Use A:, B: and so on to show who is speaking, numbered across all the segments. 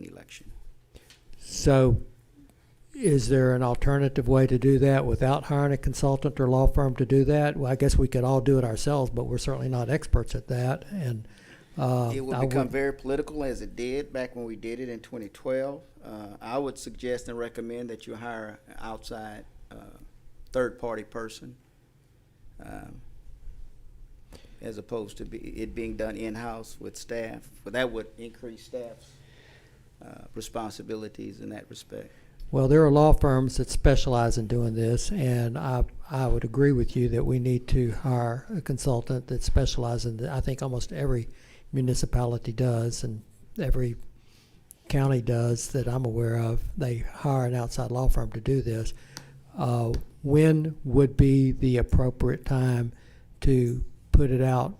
A: election.
B: So is there an alternative way to do that without hiring a consultant or law firm to do that? Well, I guess we could all do it ourselves, but we're certainly not experts at that and, uh,
A: It will
B: I would-
A: become very political as it did back when we did it in 2012. Uh, I would suggest and recommend that you hire an outside, uh, third-party person, um, as opposed to be, it being done in-house with staff. But that would increase staff's, uh, responsibilities in that respect.
B: Well, there are law firms that specialize in doing this, and I, I would agree with you that we need to hire a consultant that specializes in, th- I think almost every municipality does and every county does that I'm aware of. They hire an outside law firm to do this. Uh, when would be the appropriate time to put it out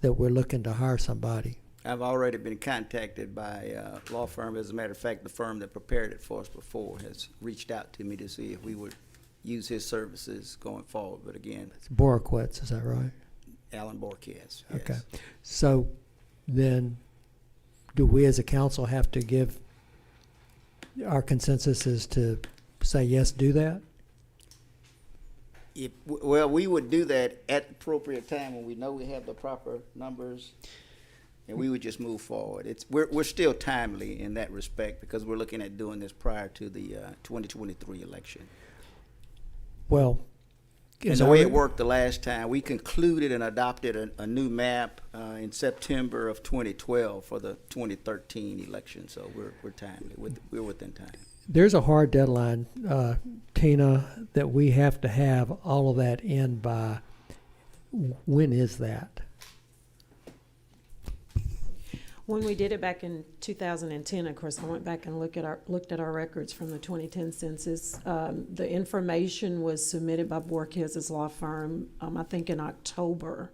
B: that we're looking to hire somebody?
A: I've already been contacted by a law firm. As a matter of fact, the firm that prepared it for us before has reached out to me to see if we would use his services going forward. But again,
B: It's Borowitz, is that right?
A: Alan Borkes. yes.
B: Okay, so then, do we as a council have to give, our consensus is to say yes, do that?
A: If, well, we would do that at the appropriate time when we know we have the proper numbers, and we would just move forward. It's, we're, we're still timely in that respect because we're looking at doing this prior to the uh, 2023 election.
B: Well.
A: And
B: as
A: the
B: I
A: way it
B: re-
A: worked the last time, we concluded and adopted a, a new map uh, in September of 2012 for the 2013 election. So we're, we're timely. With, we're within time.
B: There's a hard deadline, uh, Tina, that we have to have all of that in by, when is that?
C: When we did it back in 2010, of course, I went back and looked at our, looked at our records from the 2010 census. Um, The information was submitted by Borkes's law firm, um, I think in October,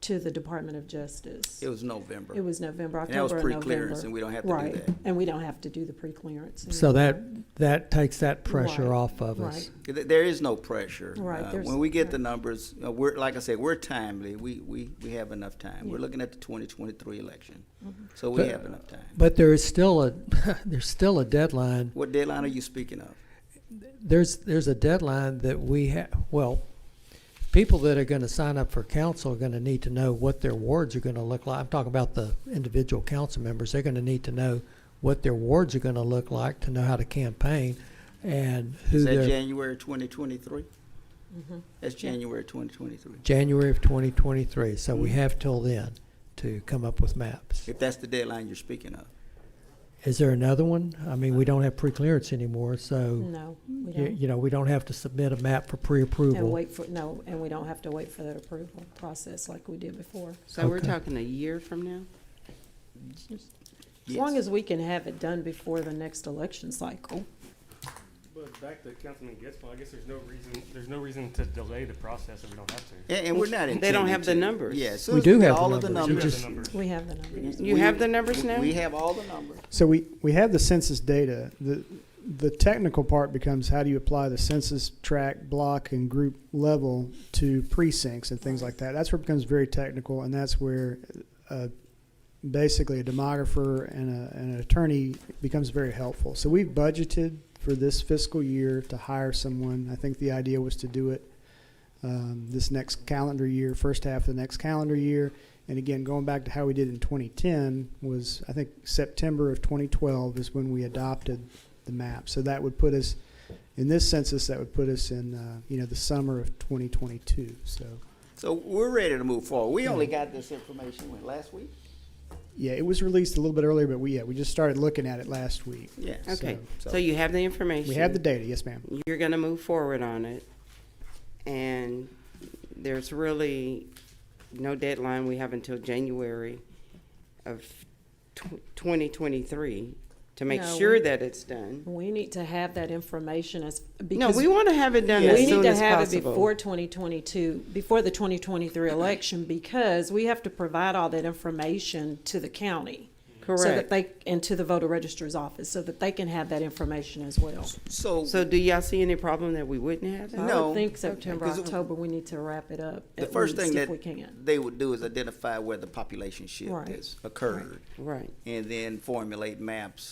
C: to the Department of Justice.
A: It was November.
C: It was November,
A: And that was
C: October and
A: pre-clearance,
C: November.
A: and we don't have to do
C: Right,
A: that.
C: and we don't have to do the pre-clearance. and-
B: So that, that takes that pressure
C: Mm. Right,
B: off of us.
C: right.
A: Th- There is no pressure.
C: Right,
A: Uh,
C: there's-
A: When we get
C: right.
A: the numbers, uh, we're, like I said, we're timely. We, we, we have enough time. We're
C: Yeah. Mm-hmm.
A: looking at the 2023 election. So we
B: But-
A: have enough time.
B: But there is still a, there's still a deadline
A: What deadline are you speaking of?
B: there's there's a deadline that we have. Well, people that are going to sign up for council are going to need to know what their wards are going to look like. I'm talking about the individual council members. They're going to need to know what their wards are going to look like to know how to campaign and who
A: Is that
B: their
A: January 2023?
C: mm-hmm.
A: That's January 2023.
B: January of 2023. So
A: Hmm.
B: we have till then to come up with maps.
A: If that's the deadline you're speaking of.
B: Is there another one? I mean, we don't have pre-clearance anymore, so
C: No, we
B: you,
C: don't.
B: you know we don't have to submit a map for
C: And
B: pre-approval.
C: wait for, no, and we don't have to wait for that approval process like we did before.
D: So we're
B: Okay.
D: talking a year from now?
C: As long
A: Yes.
C: as we can have it done before the next election cycle.
E: But back to Councilman Getzlaw, I guess there's no reason, there's no reason to delay the process if we don't have to.
A: And, and we're not intending
D: They don't have the
A: to.
D: numbers.
A: Yeah, as soon
B: We
A: as
B: do
A: get
B: have the
A: all of the
B: numbers. You
A: numbers.
E: We have the numbers.
C: We have the numbers.
D: You
A: We-
D: have the numbers now?
A: We have all the numbers.
F: So we, we have the census data. The, the technical part becomes how do you apply the census tract, block, and group level to precincts and things like that. That's where it becomes very technical, and that's where uh, basically a demographer and, a, and an attorney becomes very helpful. So we've budgeted for this fiscal year to hire someone. I think the idea was to do it um, this next calendar year, first half of the next calendar year. And again, going back to how we did in 2010 was, I think, September of 2012 is when we adopted the map. So that would put us, in this census, that would put us in, uh, you know, the summer of 2022. So,
A: So we're ready to move forward. We only got this information when, last week?
F: yeah, it was released a little bit earlier, but we, yeah, we just started looking at it last week.
A: Yeah.
D: Okay,
A: So-
D: so you have the information.
F: We have the data, yes, ma'am.
D: You're gonna move forward on it. And there's really no deadline. We have until January of twenty twenty-three to make
C: No,
D: sure
C: we-
D: that it's done.
C: We need to have that information as,
D: No,
C: because
D: we wanna have it done as
C: we need
D: soon
C: to
D: as
C: have it before
D: possible.
C: twenty twenty-two, before the twenty twenty-three election, because we have to provide all that information to the county. So that
D: Correct.
C: they, and to the voter registrar's office, so that they can have that information as well.
A: So,
D: So do y'all see any problem that we wouldn't have? that?
C: I
A: No.
C: would think September,
A: 'Cause it-
C: October, we need to wrap it up.
A: the
D: uh,
C: at
A: first
C: least,
A: thing
C: If
A: that
C: we can.
A: they would do is identify where the population shift
C: Right.
A: has occurred
D: Right.
A: and then formulate maps